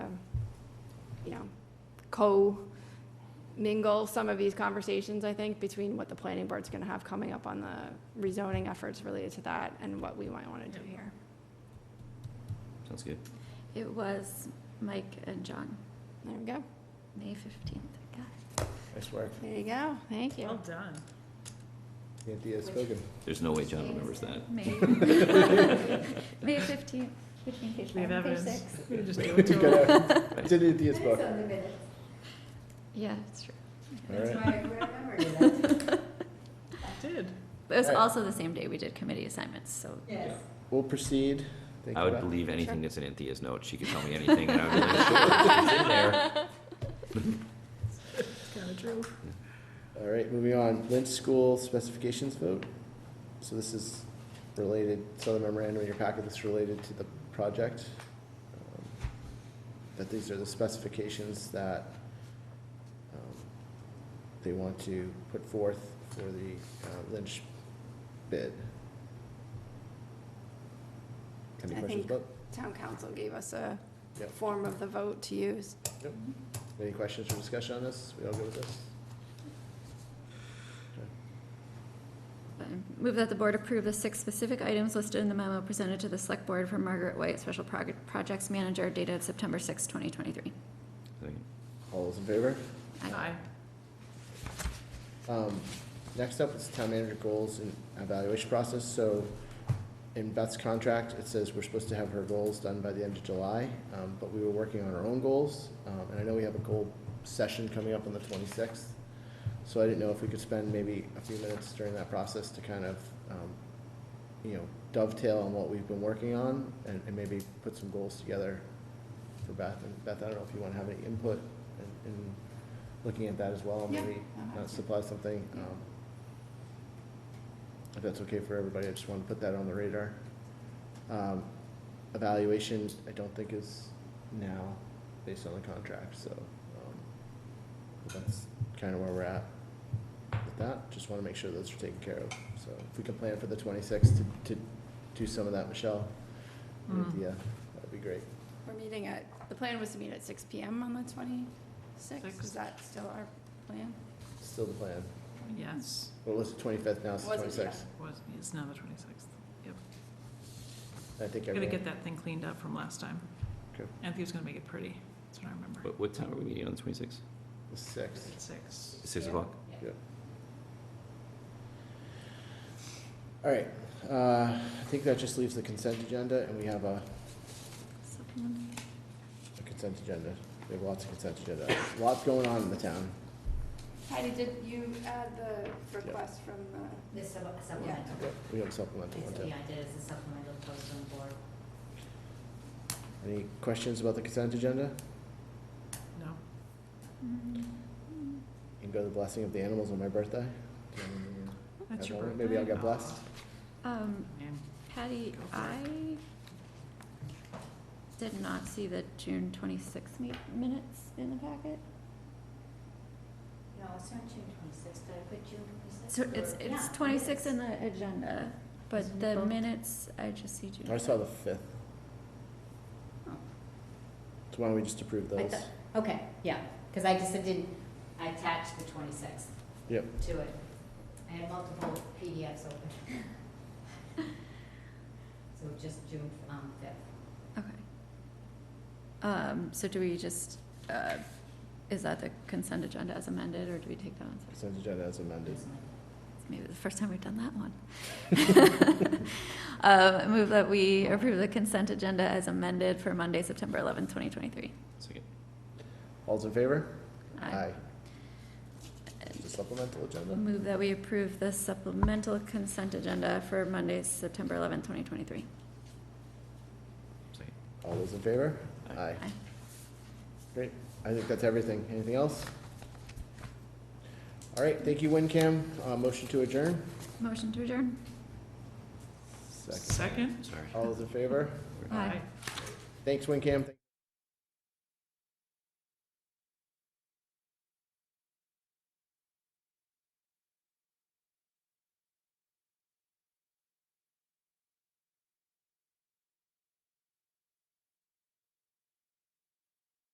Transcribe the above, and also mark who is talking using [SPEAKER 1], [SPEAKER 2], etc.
[SPEAKER 1] co-mingle some of these conversations, I think, between what the planning board's gonna have coming up on the rezoning efforts related to that and what we might wanna do here.
[SPEAKER 2] Sounds good.
[SPEAKER 3] It was Mike and John,
[SPEAKER 1] There we go.
[SPEAKER 3] May fifteenth.
[SPEAKER 4] Nice work.
[SPEAKER 1] There you go. Thank
[SPEAKER 5] Well
[SPEAKER 1] you.
[SPEAKER 5] done.
[SPEAKER 4] Anthea has spoken.
[SPEAKER 2] There's no way John remembers that.
[SPEAKER 3] May, May fifteenth, between page
[SPEAKER 5] We
[SPEAKER 3] five
[SPEAKER 5] have
[SPEAKER 3] and page
[SPEAKER 5] evidence.
[SPEAKER 3] six.
[SPEAKER 5] We can just do it
[SPEAKER 4] It's
[SPEAKER 5] to her.
[SPEAKER 4] in Anthea's book.
[SPEAKER 3] Yeah, it's true.
[SPEAKER 4] All right.
[SPEAKER 5] Did.
[SPEAKER 3] But it was
[SPEAKER 4] All right.
[SPEAKER 3] also the same day we did committee assignments, so
[SPEAKER 2] Yes.
[SPEAKER 4] We'll proceed. Thank
[SPEAKER 2] I
[SPEAKER 4] you,
[SPEAKER 2] would
[SPEAKER 4] Beth.
[SPEAKER 2] believe anything that's in Anthea's note. She could tell me anything and I would be like, sure, it's in there.
[SPEAKER 5] It's kind of true.
[SPEAKER 4] All right, moving on. Lynch School specifications vote. So this is related, so the memorandum in your packet that's related to the project. um, That these are the specifications that um, they want to put forth for the uh, Lynch bid. Any
[SPEAKER 1] I
[SPEAKER 4] questions,
[SPEAKER 1] think-
[SPEAKER 4] Bob?
[SPEAKER 1] Town council gave us a
[SPEAKER 4] Yep.
[SPEAKER 1] form of the vote to use.
[SPEAKER 4] Any questions or discussion on this? We all good with this?
[SPEAKER 3] um, move that the board approve the six specific items listed in the memo presented to the select board from Margaret White, special Prog- projects manager dated September sixth, twenty twenty-three.
[SPEAKER 2] Second.
[SPEAKER 4] All those in favor?
[SPEAKER 5] Hi.
[SPEAKER 4] Um, Next up is town manager goals and evaluation process. So in Beth's contract, it says we're supposed to have her goals done by the end of July, um, but we were working on our own goals. Um, And I know we have a goal session coming up on the twenty-sixth. So I didn't know if we could spend maybe a few minutes during that process to kind of, um, you know, dovetail on what we've been working on and, and maybe put some goals together for Beth. And Beth, I don't know if you want to have any input in, in looking at that as well,
[SPEAKER 1] Yeah.
[SPEAKER 4] maybe uh, supply something.
[SPEAKER 3] Yeah.
[SPEAKER 4] um, If that's okay for everybody, I just want to put that on the radar. Um, Evaluation, I don't think is now based on the contract, so um, that's kind of where we're at with that. Just want to make sure those are taken care of. So if we can plan for the twenty-sixth to, to do some of that, Michelle, and
[SPEAKER 5] Mm.
[SPEAKER 4] Anthea, that'd be great.
[SPEAKER 1] We're meeting at, the plan was to meet at six PM on the twenty-sixth. Is
[SPEAKER 5] Sixth.
[SPEAKER 1] that still our plan?
[SPEAKER 4] Still the plan.
[SPEAKER 5] Yes,
[SPEAKER 4] What was it, twenty-fifth, now it's the
[SPEAKER 1] Was it, yeah.
[SPEAKER 4] twenty-sixth?
[SPEAKER 5] was, it's now the twenty-sixth. Yep.
[SPEAKER 4] I think
[SPEAKER 5] Gotta
[SPEAKER 4] everyone,
[SPEAKER 5] get that thing cleaned up from last time.
[SPEAKER 4] Okay.
[SPEAKER 5] Anthea's gonna make it pretty. That's what I remember.
[SPEAKER 2] What, what time are we meeting on the twenty-sixth?
[SPEAKER 4] the sixth.
[SPEAKER 5] Six.
[SPEAKER 2] Six o'clock?
[SPEAKER 4] All right, uh, I think that just leaves the consent agenda, and we have a
[SPEAKER 3] Supplemental.
[SPEAKER 4] a consent agenda. We have lots of consent agenda. items. Lots going on in the town.
[SPEAKER 1] Heidi, did you add the request from uh, the?
[SPEAKER 6] This sub- supplemental,
[SPEAKER 4] We have a supplemental one,
[SPEAKER 6] It's-
[SPEAKER 4] too.
[SPEAKER 6] yeah, I did, it's a supplemental post on the board.
[SPEAKER 4] Any questions about the consent agenda?
[SPEAKER 5] No.
[SPEAKER 3] Mm-hmm.
[SPEAKER 4] You can go to the blessing of the animals on my birthday. Do you have any, uh,
[SPEAKER 5] That's your
[SPEAKER 4] Everyone,
[SPEAKER 5] birthday.
[SPEAKER 4] maybe I'll get blessed.
[SPEAKER 3] Um,
[SPEAKER 5] Aw, man.
[SPEAKER 3] Patty,
[SPEAKER 5] Go for
[SPEAKER 3] I did not see the June twenty-sixth minutes in the packet.
[SPEAKER 6] No, it's on June twenty-sixth, did I put June twenty-sixth?
[SPEAKER 3] So it's, it's twenty-six in the agenda, but the minutes, I just see
[SPEAKER 4] I
[SPEAKER 3] June.
[SPEAKER 4] saw the fifth. So why don't we just approve
[SPEAKER 6] I
[SPEAKER 4] those?
[SPEAKER 6] thought- Okay, yeah, because I just didn't, I attached the twenty-sixth
[SPEAKER 4] Yep.
[SPEAKER 6] to it. I had multiple PDFs open. So just June, um, fifth.
[SPEAKER 3] Okay. Um, so do we just, uh, is that the consent agenda as amended, or do we take that on? separate?
[SPEAKER 4] Consent agenda as amended.
[SPEAKER 3] It's Maybe the first time we've done that one. Uh, move that we approve the consent agenda as amended for Monday, September eleventh, twenty twenty-three.
[SPEAKER 2] Second.
[SPEAKER 4] All's in favor? The supplemental agenda?
[SPEAKER 3] Move that we approve the supplemental consent agenda for Monday, September eleventh, twenty twenty-three.
[SPEAKER 2] Second.
[SPEAKER 4] All those in favor?
[SPEAKER 2] Aye.
[SPEAKER 3] Aye.
[SPEAKER 4] Great. I think that's everything. Anything else? All right, thank you, WinCam. Uh, motion to adjourn?
[SPEAKER 3] Motion to adjourn?
[SPEAKER 4] Second.
[SPEAKER 5] Second?
[SPEAKER 2] Sorry.
[SPEAKER 4] All those in favor?
[SPEAKER 3] Aye.
[SPEAKER 4] Thanks, WinCam.